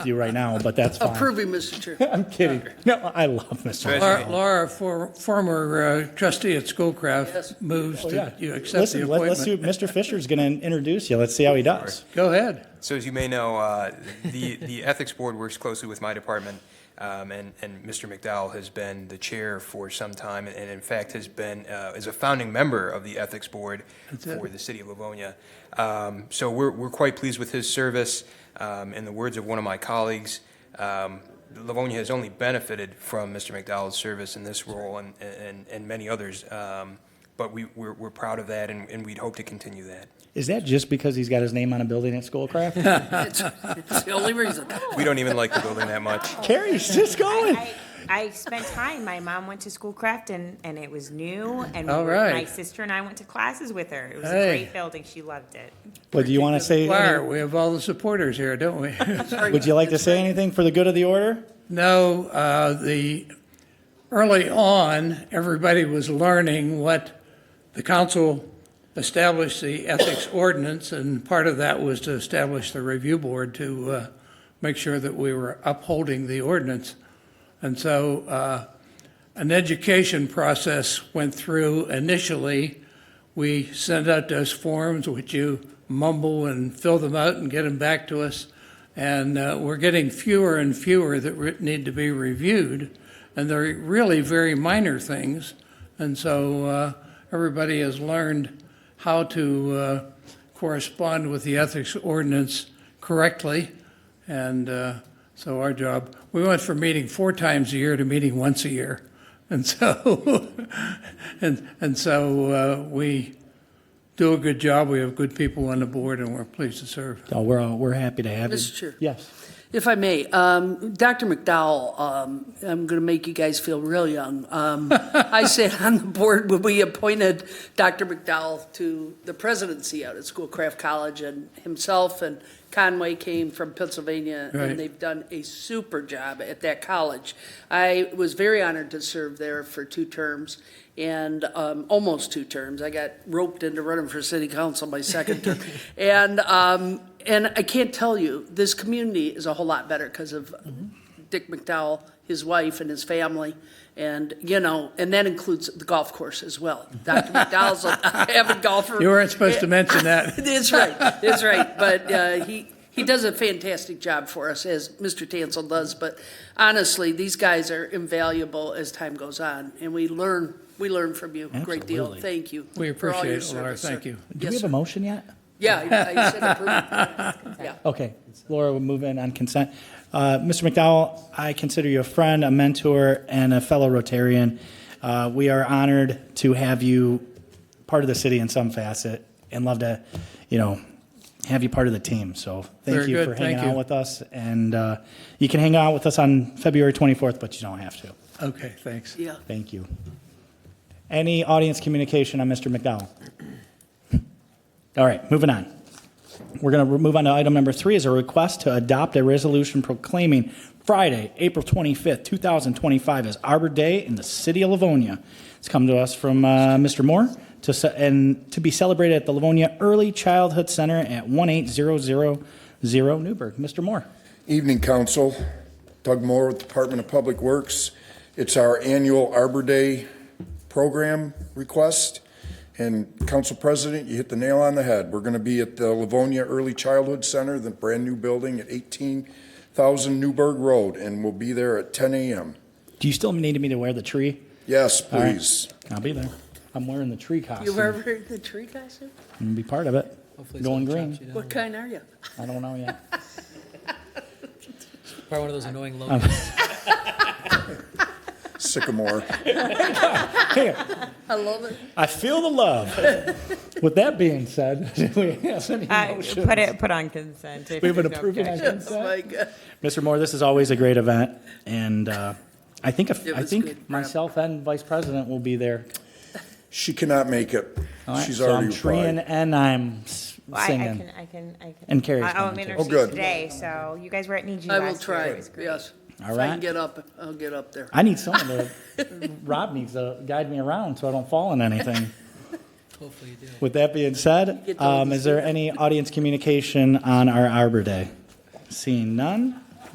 you right now, but that's fine. Approving, Mr. Chair. I'm kidding. No, I love Mr. Hall. Laura- Laura, for- former uh, trustee at Yes. Schoolcraft, moves to you accept the Oh, Listen, let- let's see, appointment. Mr. Fisher's going to introduce you. Let's see how he does. Go ahead. So as you may know, uh, the, the Ethics Board works closely with my department, um, and, and Mr. McDowell has been the chair for some time, and in fact has been, uh, is a founding member of the Ethics Board it. for the city of Livonia. Um, So we're, we're quite pleased with his service. Um, In the words of one of my colleagues, um, Livonia has only benefited from Mr. McDowell's service in this role and, and, and many others. Um, But we, we're, we're proud of that, and, and we'd hope to continue that. Is that just because he's got his name on a building at Schoolcraft? It's it's the only reason. We don't even like the building that much. Carrie's just going. I, I spent time. My mom went to Schoolcraft, and, and it was new. And we All were- right. my sister and I went to classes with her. It was Hey. a great building. She loved it. But do you want to say, Laura, we have all the supporters here, don't we? would you like to say anything for the good of the order? No, uh, the, early on, everybody was learning what the council established the ethics ordinance, and part of that was to establish the review board to uh, make sure that we were upholding the ordinance. And so uh, an education process went through initially. We sent out those forms, which you mumble and fill them out and get them back to us. And uh, we're getting fewer and fewer that re- need to be reviewed, and they're really very minor things. And so uh, everybody has learned how to uh, correspond with the ethics ordinance correctly. And uh, so our job, we went from meeting four times a year to meeting once a year. And so, and, and so uh, we do a good job. We have good people on the board and we're pleased to serve. Oh, we're, all- we're happy to have you. Mr. Chair. Yes. If I may, um, Dr. McDowell, um, I'm going to make you guys feel real young. Um, I sat on the board when we appointed Dr. McDowell to the presidency out at Schoolcraft College, and himself and Conway came from Pennsylvania, Right. and they've done a super job at that college. I was very honored to serve there for two terms, and um, almost two terms. I got roped into running for city council my second term. And, um, and I can't tell you, this community is a whole lot better because of Mm-hmm. Dick McDowell, his wife, and his family. And, you know, and that includes the golf course as well. Dr. McDowell's an avid golfer. You weren't supposed to mention that. That's right. That's right. But uh, he he does a fantastic job for us, as Mr. Tansel does. But honestly, these guys are invaluable as time goes on, and we learn we learn from you a great deal. Absolutely. Thank you. We for all your appreciate it, Laura. service, sir. Thank you. Do we Yes, have a sir. motion yet? Yeah, I- I said approve. Yeah. Okay, Laura, we'll move in on consent. Uh, Mr. McDowell, I consider you a friend, a mentor, and a fellow Rotarian. Uh, We are honored to have you part of the city in some facet, and love to, you know, have you part of the team. So thank Very you good, for hanging thank you. out with us, and uh, you can hang out with us on February 24th, but you don't have to. Okay, thanks. Yeah. Thank you. Any audience communication on Mr. McDowell? All right, moving on. We're going to move on to item number three is a request to adopt a resolution proclaiming Friday, April 25th, 2025 as Arbor Day in the city of Livonia. It's come to us from uh, Mr. Moore to, ce- and to be celebrated at the Livonia Early Childhood Center at 18000 Newburgh. Mr. Moore. Evening, Council. Doug Moore with Department of Public Works. It's our annual Arbor Day program request. And Council President, you hit the nail on the head. We're going to be at the Livonia Early Childhood Center, the brand-new building at 18,000 Newburgh Road, and we'll be there at 10 a.m. Do you still need me to wear the tree? Yes, All right. please. I'll be there. I'm wearing the tree costume. You ever heard the tree gossip? I'm gonna be part of it. Going green. What kind are you? I don't know yet. Probably one of those annoying logos. Sycamore. I love it. I feel the love. With that being said, do we have any Uh, motions? put it put on consent. if We've been there's no approving objection. consent. Oh, my God. Mr. Moore, this is always a great event, and uh, I think if, It I was good, think Rob. myself and Vice President will be there. She cannot make it. All right, She's so already I'm treeing replied. and I'm s- Well, I, I singing. can I can I can. And Carrie's I, oh, going I'm to. in oh, good. today, so you guys were at Niji I last will try. Year. It was Yes. great. All If I right. can get up, I'll get up there. I need someone to. Rob needs to guide me around so I don't fall in anything. Hopefully you do. With that being said, Get to all um, the is there any audience communication on our Arbor Day? Seeing none,